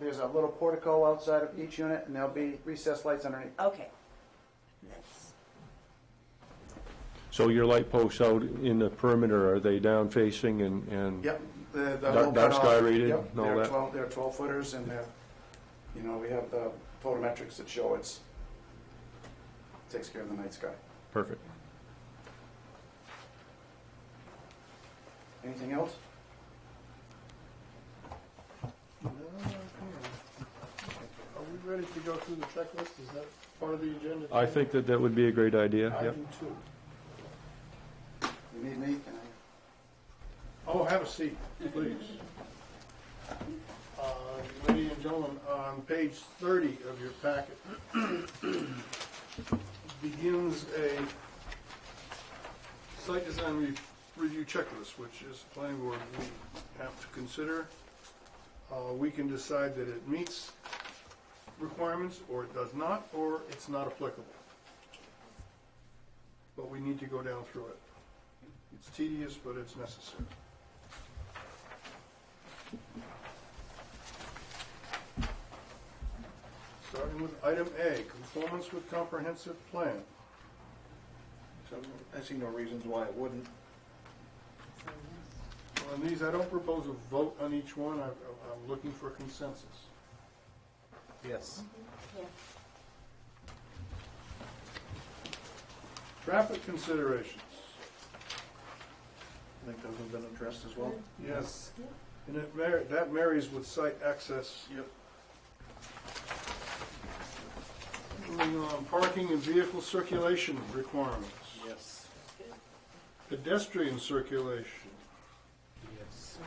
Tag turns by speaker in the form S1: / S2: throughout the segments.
S1: There's a little portico outside of each unit, and there'll be recessed lights underneath.
S2: Okay. That's-
S3: So your light posts out in the perimeter, are they down facing and, and?
S1: Yep. the- the
S3: Dark-
S1: low
S3: dark
S1: cutoff,
S3: sky rated
S1: yep,
S3: and all
S1: they're
S3: that?
S1: 12 They're twelve footers, and they're, you know, we have the photometrics that show it's, takes care of the night sky.
S3: Perfect.
S1: Anything else?
S4: Are we ready to go through the checklist? Is that part of the agenda?
S3: I think that that would be a great idea,
S4: I
S3: yep.
S4: do too.
S1: You need me? Can
S4: Oh, have a seat, please. Uh, Ladies and gentlemen, on page 30 of your packet begins a site design re- review checklist, which is a planning board we have to consider. Uh, We can decide that it meets requirements, or it does not, or it's not applicable. But we need to go down through it. It's tedious, but it's necessary. Starting with item A, conformance with comprehensive plan.
S5: So I see no reasons why it wouldn't.
S4: On these, I don't propose a vote on each one, I- I'm looking for consensus.
S5: Yes.
S4: Traffic considerations.
S5: I think those have been addressed as well.
S4: Yes. And it mar, that marries with site access.
S5: Yep.
S4: Moving on, parking and vehicle circulation requirements.
S5: Yes.
S4: Pedestrian circulation.
S5: Yes.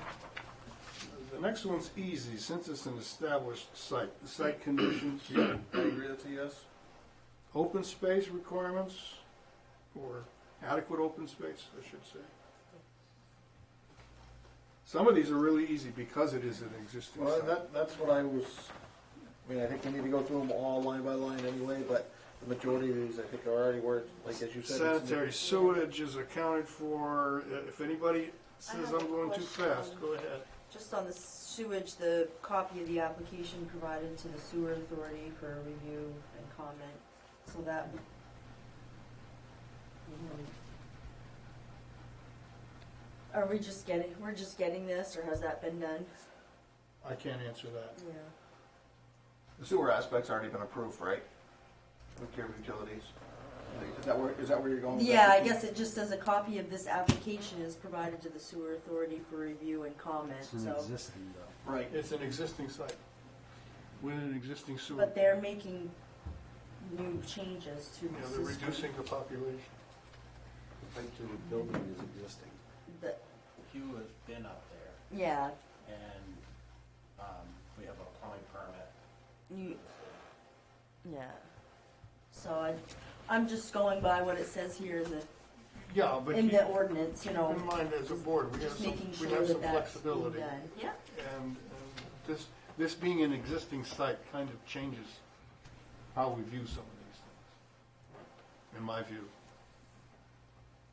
S4: The next one's easy, since it's an established site. The site conditions,
S5: I agree that's a yes.
S4: open space requirements, or adequate open space, I should say. Some of these are really easy because it is an existing
S5: Well,
S4: site.
S5: that, that's what I was, I mean, I think we need to go through them all line by line anyway, but the majority of these, I think, are already where, like, as you said. it's in
S4: Sanitary sewage is accounted for. Uh, If anybody says
S2: have
S4: I'm
S2: a
S4: going too
S2: question.
S4: fast, go ahead.
S2: Just on the sewage, the copy of the application provided to the sewer authority for review and comment, so that. Are we just getting, we're just getting this, or has that been done?
S4: I can't answer that.
S2: Yeah.
S5: The sewer aspect's already been approved, right? With care of utilities. Is that where, is that where you're going? with
S2: Yeah,
S5: that?
S2: I guess it just says a copy of this application is provided to the sewer authority for review and comment, so.
S5: Right.
S4: It's an existing site with an existing sewer.
S2: But they're making new changes to
S4: You know, they're
S2: the system.
S4: reducing the population.
S6: Type two building is existing.
S2: The-
S6: Hugh has been up there
S2: Yeah,
S6: and, um, we have a plumbing permit.
S2: you, yeah. So I, I'm just going by what it says here in the,
S4: Yeah, but
S2: in
S4: keep
S2: the ordinance, you know,
S4: in mind as a board, we have
S2: just
S4: some,
S2: making
S4: we
S2: sure
S4: have some
S2: that that's being
S4: flexibility.
S2: done. Yeah,
S4: And and this, this being an existing site kind of changes how we view some of these things, in my view.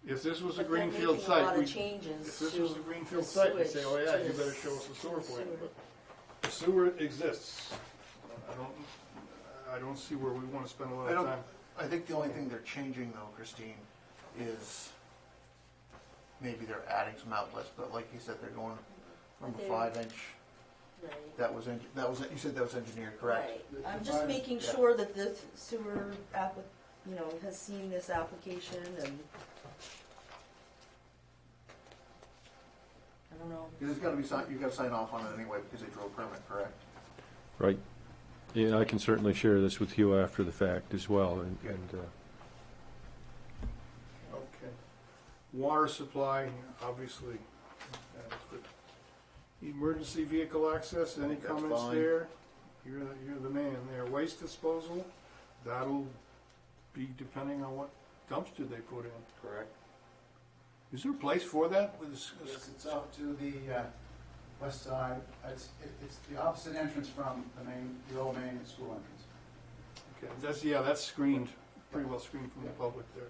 S4: If this was a
S2: But they're
S4: greenfield
S2: making a lot
S4: site,
S2: of
S4: we,
S2: changes
S4: if this
S2: to
S4: was a greenfield
S2: the
S4: site, we say,
S2: sewage,
S4: oh yeah,
S2: to the
S4: you better
S2: s-
S4: show us the sewer plan.
S2: sewer.
S4: But the sewer exists. I don't, I don't see where we want to spend a lot
S5: I
S4: of
S5: don't-
S4: time.
S5: I think the only thing they're changing though, Christine, is maybe they're adding some outlets, but like you said, they're going from
S2: They're-
S5: a five inch,
S2: right.
S5: that was, en- that was, you said that was engineered, correct?
S2: Right. I'm just making
S5: Yeah.
S2: sure that the sewer app, you know, has seen this application and. I don't know.
S5: Because it's gotta be, signed- you gotta sign off on it anyway because they drew a permit, correct?
S3: Right. Yeah, I can certainly share this with you after the fact as well, and, and, uh,
S4: Okay. Water supply, obviously. that's good. Emergency vehicle access, any
S5: That's
S4: comments
S5: fine.
S4: there? You're, the- you're the man there. Waste disposal, that'll be depending on what dumpster they put in.
S5: Correct.
S4: Is there a place for that with uh, this?
S1: Yes, it's up to the uh, west side. It's, it- it's the opposite entrance from the main, the old main and school entrance.
S4: Okay, that's, yeah, that's screened, pretty well screened from the public there.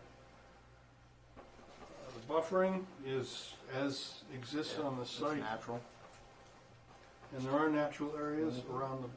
S4: Uh, The buffering is as exists on the
S5: It's
S4: site,
S5: natural. Mm-hmm.
S4: and there are natural areas around the